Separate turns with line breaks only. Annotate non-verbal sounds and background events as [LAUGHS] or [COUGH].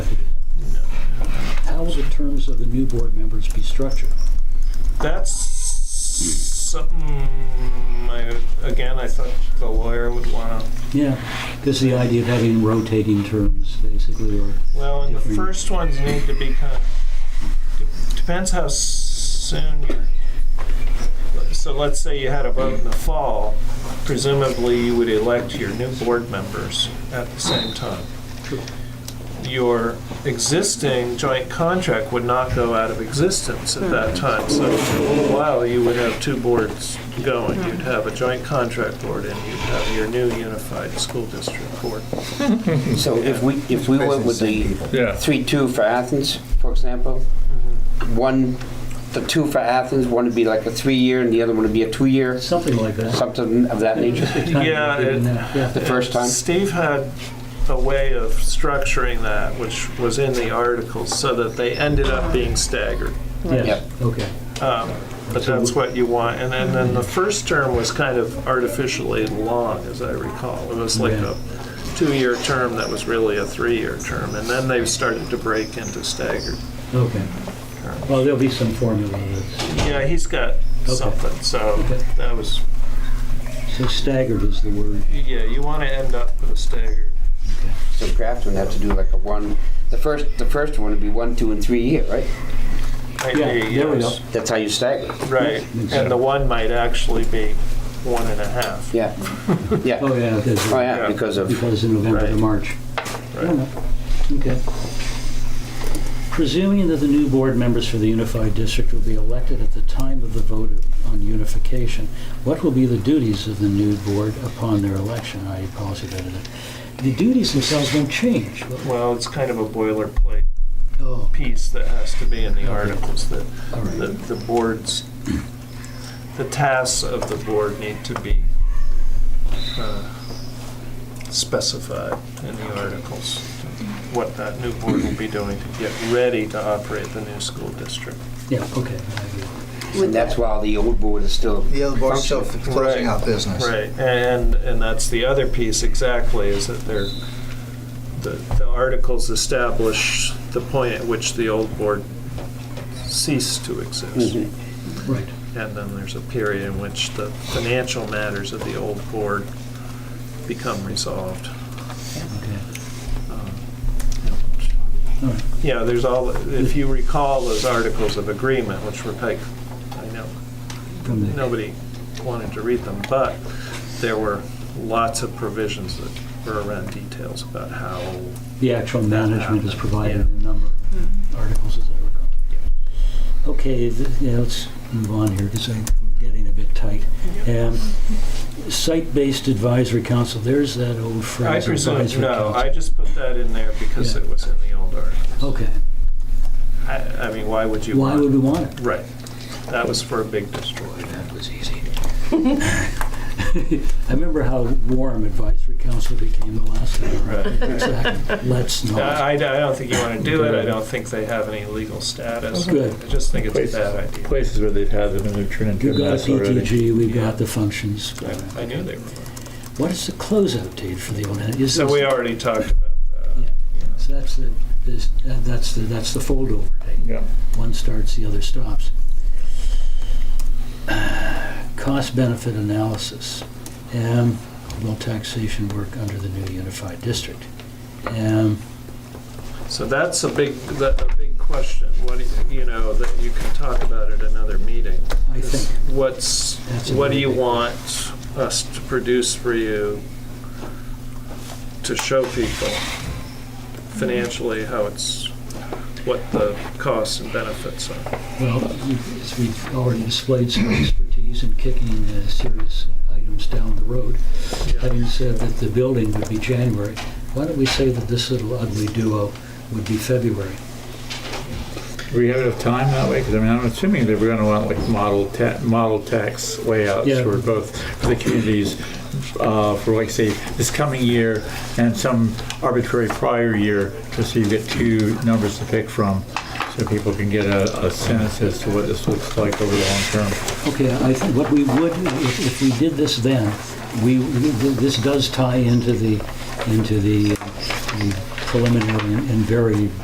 terms of the new board members be structured?
That's something. I, again, I thought the lawyer would want to.
Yeah, because the idea of having rotating terms, basically, or,
Well, and the
Different-
first ones need to be kind of, de- depends how soon you're, so let's say you had a vote in the fall, presumably you would elect your new board members at the same time. Your existing joint contract would not go out of existence at that time, so for a little while, you would have two boards going. You'd have a joint contract board and you'd have your new unified school district board.
So if we, if we went with the
Yeah.
three-two for Athens, for example, one, the two for Athens, one would be like a three-year and the other one would be a two-year,
something like that.
something of that nature,
Yeah, it-
Yeah.
the first time.
Uh, Steve had a way of structuring that, which was in the articles, so that they ended up being staggered.
Yes,
Yep.
okay.
Um, But that's what you want. And then, then the first term was kind of artificially long, as I recall. It was like
Yeah.
a two-year term that was really a three-year term. And then they started to break into staggered.
Okay. Well, there'll be some formula that's,
Yeah, he's got
Okay.
something, so
Okay.
that was,
so staggered is the word.
yeah, you want to end up with a staggered.
So Grafton would have to do like a one, the first, the first one would be one, two, and three-year, right?
idea,
there we
yes.
go.
That's how you stagger.
Right, and the one might actually be one and a half.
Yeah, yeah.
Oh, yeah,
Oh,
because,
yeah, because of,
because in November to
Right.
March.
Right.
Fair enough. Okay. Presuming that the new board members for the unified district will be elected at the time of the vote on unification, what will be the duties of the new board upon their election, i.e. policy, da, da, da? The duties themselves don't change. but-
Well, it's kind of a boilerplate
Oh,
piece that has to be in the articles, that
all
the,
right.
the boards, the tasks of the board need to be uh, specified in the articles, what that new board will be doing to get ready to operate the new school district.
Yeah, okay. I agree.
and that's why the old board is still,
The other board's still
Function.
closing
Right.
out business.
Right, and, and that's the other piece exactly, is that they're, the, the articles establish the point at which the old board ceased to exist.
Mhm.
Right.
And then there's a period in which the financial matters of the old board become resolved.
Okay.
Uh, Yeah, there's all, if you recall those articles of agreement, which were like, I know,
From the-
nobody wanted to read them, but there were lots of provisions that were around details about how,
The actual management is provided in a number of articles, as I recall. Okay, th- Hmm. yeah, let's move on here, because we're getting a bit tight. Um, Site-based advisory council, there's that old
I
phrase.
presume,
advisory
no,
council.
I just put that in there because
Yeah.
it was in the old article.
Okay,
I, I mean, why would you
why would
want?
we want it?
Right, that was for a big destroyer.
That was easy. [LAUGHS] I remember how warm advisory council became the last time.
Right.
Exactly.
[LAUGHS]
Let's not.
I, I don't think you want to do it, I don't think they have any legal status.
Oh, Good.
I just think it's a bad idea.
Places where they've had them and they've turned into
We've
a
got a
mess already.
PTG, we've
Yeah.
got the functions.
I- I knew they were.
What is the closeout date for the old? is
So
this-
we already talked about that.
So that's the, this, that- that's the, that's the foldover date.
Yeah.
One starts, the other stops. [SIGHS] Cost benefit analysis. Um, will taxation work under the new unified district? Um,
So that's a big, that, a big question, what, do you- you know, that you can talk about at another meeting.
I
Is
think,
What's,
That's a
what do
really
you
big-
want us to produce for you to show people financially how it's, what the costs and benefits are?
well, we- as we've already displayed some expertise in kicking uh, serious items down the road. Having said that the building would be January, why don't we say that this little ugly duo would be February?
Do we have enough time that way? Because I mean, I'm assuming that we're going to want like model ta- model tax layouts
Yeah.
for both for the communities uh, for like say this coming year and some arbitrary prior year, just so you get two numbers to pick from, so people can get a, a sense as to what this looks like over the long term.
Okay, I think what we would, if, if we did this then, we, this does tie into the, into the uh, the preliminary and very